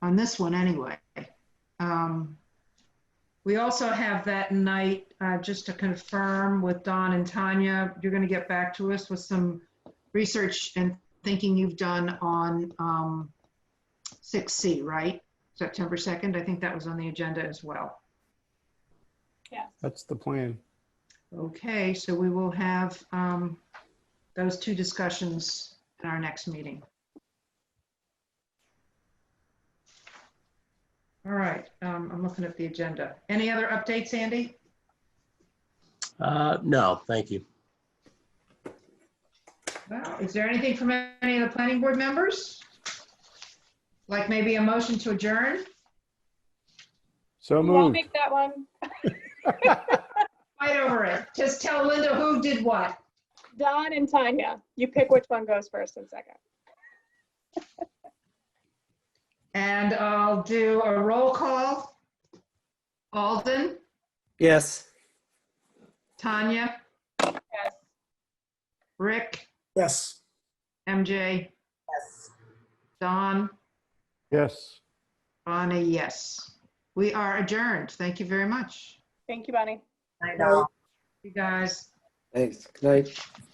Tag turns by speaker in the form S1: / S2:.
S1: on this one anyway. Um, We also have that night, uh, just to confirm with Don and Tanya, you're going to get back to us with some research and thinking you've done on um, 6C, right? September 2nd, I think that was on the agenda as well.
S2: Yes.
S3: That's the plan.
S1: Okay, so we will have um, those two discussions in our next meeting. All right, um, I'm looking at the agenda. Any other updates, Andy?
S4: Uh, no, thank you.
S1: Well, is there anything from any of the planning board members? Like maybe a motion to adjourn?
S3: So
S2: Well, I'll
S3: moved.
S2: make that one.
S1: Fight over it. Just tell Linda who did what.
S2: Don and Tanya, you pick which one goes first and second.
S1: And I'll do a roll call. Alden,
S5: Yes.
S1: Tanya,
S2: Yes.
S1: Rick,
S5: Yes.
S1: MJ,
S5: Yes.
S1: Don,
S3: Yes.
S1: Bonnie, yes. We are adjourned. Thank you very much.
S2: Thank you, Bonnie.
S5: I know.
S1: You guys.
S5: Thanks. Good night.